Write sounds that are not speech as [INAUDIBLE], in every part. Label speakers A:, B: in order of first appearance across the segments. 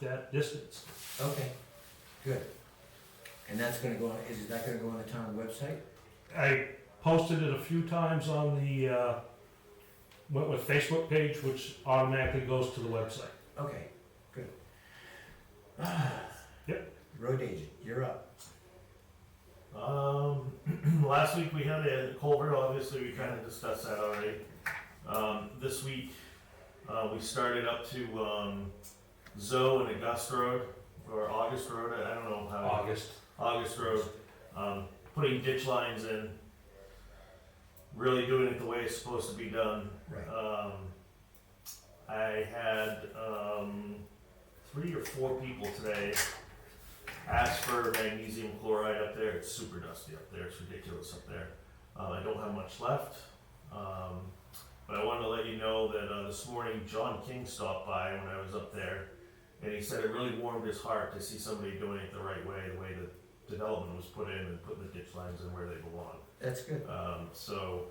A: that distance.
B: Okay, good. And that's gonna go on, is that gonna go on the town website?
A: I posted it a few times on the uh, Wentworth Facebook page, which automatically goes to the website.
B: Okay, good. [SIGHS]
A: Yep.
B: Road agent, you're up.
C: Um, [CLEARS THROAT] last week we had a culvert, obviously, we kind of discussed that already. Um, this week, uh, we started up to, um, Zoe and August Road, or August Road, I don't know how,
A: August.
C: August Road, um, putting ditch lines in. Really doing it the way it's supposed to be done.
B: Right.
C: Um, I had um, three or four people today ask for magnesium chloride up there. It's super dusty up there. It's ridiculous up there. Uh, I don't have much left. Um, but I wanted to let you know that uh, this morning John King stopped by when I was up there and he said it really warmed his heart to see somebody doing it the right way, the way the development was put in and putting the ditch lines in where they belong.
B: That's good.
C: Um, so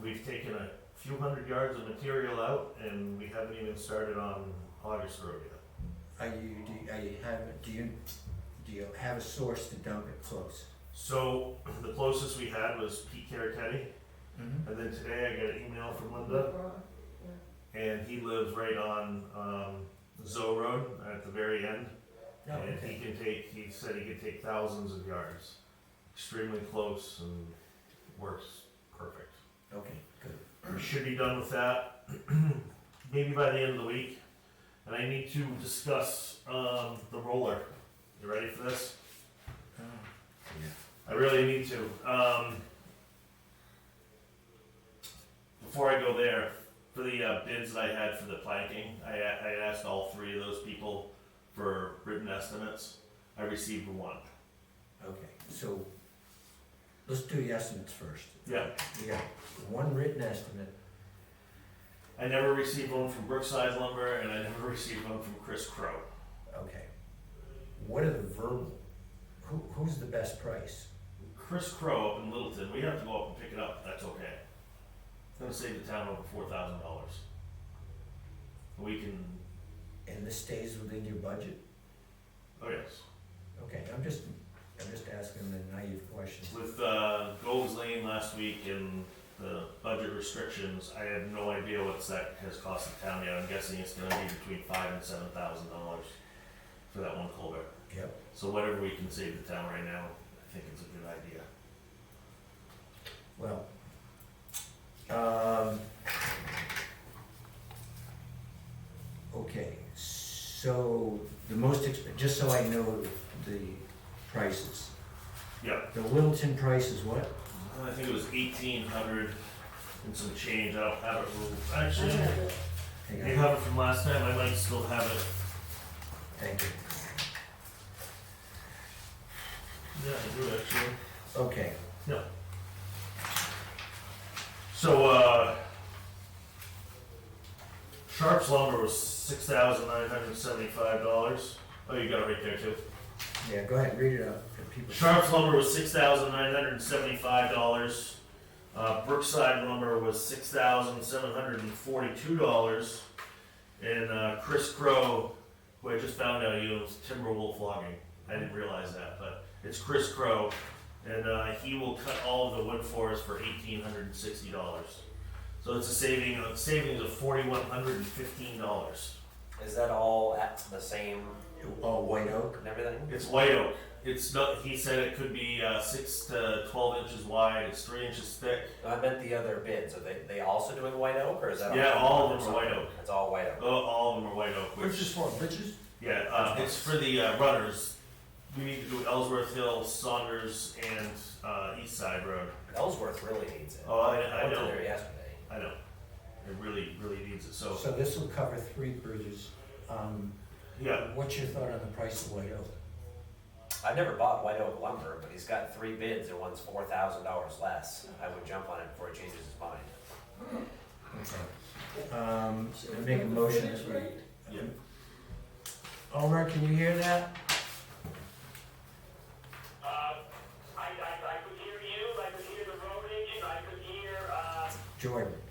C: we've taken a few hundred yards of material out and we haven't even started on August Road yet.
B: Are you, do, you- are you have, do you, do you have a source to dump it close?
C: So [CLEARS THROAT] the closest we had was Pete Caratetti,
B: Mm-hmm.
C: and then today I got an email from Linda, and he lives right on um, Zoe Road at the very end,
B: No,
C: and
B: Oh, okay.
C: he can take. He said he could take thousands of yards, extremely close and works perfect.
B: Okay, good.
C: We should be done with that [CLEARS THROAT] maybe by the end of the week. And I need to discuss um, the roller. You ready for this?
B: Oh,
C: I really need to. Um, before I go there, for the uh, bids that I had for the planking, I, I asked all three of those people for written estimates. I received one.
B: Okay, so let's do the estimates first.
C: Yeah.
B: We got one written estimate.
C: I never received one from Brookside Lumber, and I never received one from Chris Crow.
B: Okay. What are the verbal? Who, who's the best price?
C: Chris Crow up in Littleton, we have to go up and pick it up. That's okay. It's gonna save the town over four thousand dollars. We can.
B: And this stays within your budget?
C: Oh yes.
B: Okay, I'm just, I'm just asking the naive question.
C: With uh, Gold's Lane last week and the budget restrictions, I have no idea what's that has cost the town yet. I'm guessing it's gonna be between five and seven thousand dollars for that one culvert.
B: Yep.
C: So whatever we can save the town right now, I think it's a good idea.
B: Well, um, okay, so the most exp, just so I know the prices.
C: Yeah.
B: The Littleton price is what?
C: I think it was eighteen hundred and some change. I don't have it. ruled- Actually,
B: Hang on.
C: you have it from last time. I might still have it.
B: Thank you.
C: Yeah, I do actually.
B: Okay,
C: So, uh, Sharp's lumber was six thousand nine hundred seventy-five dollars. Oh, you got it right there too.
B: yeah, go ahead, read it out for people.
C: Sharp's lumber was six thousand nine hundred seventy-five dollars. Uh, Brookside lumber was six thousand seven hundred and forty-two dollars. And uh, Chris Crow, who I just found out he owns Timberwolf Logging. I didn't realize that, but it's Chris Crow, and uh, he will cut all of the wood for us for eighteen hundred and sixty dollars. So it's a saving, a savings of forty-one hundred and fifteen dollars.
D: Is that all at the same
B: All white oak?
D: and everything?
C: It's white oak. It's not. He said it could be uh, six to twelve inches wide. It's three inches thick.
D: No, I meant the other bids. Are they, they also doing white oak or is that?
C: Yeah, all of them
D: or
C: are white
D: something?
C: oak.
D: It's all white oak.
C: Oh, all of them are white oak. Which,
B: Which is for, bitches?
C: yeah, uh, it's for the uh, runners. We need to do Ellsworth Hill, Saunders, and uh, East Side Road.
D: Ellsworth really needs it.
C: Oh, I, I
D: went to
C: know,
D: there yesterday.
C: I know. It really, really needs it. So,
B: So this will cover three bridges. Um,
C: yeah,
B: What's your thought on the price of white oak?
D: I've never bought white oak lumber, but he's got three bids and one's four thousand dollars less. I would jump on it before he changes his mind.
B: Okay. Um, I make a motion that we.
C: yeah.
B: Omar, can you hear that?
E: Uh, I, I, I could hear you, I could hear the road agent, I could hear, uh,
B: Jordan,
E: uh,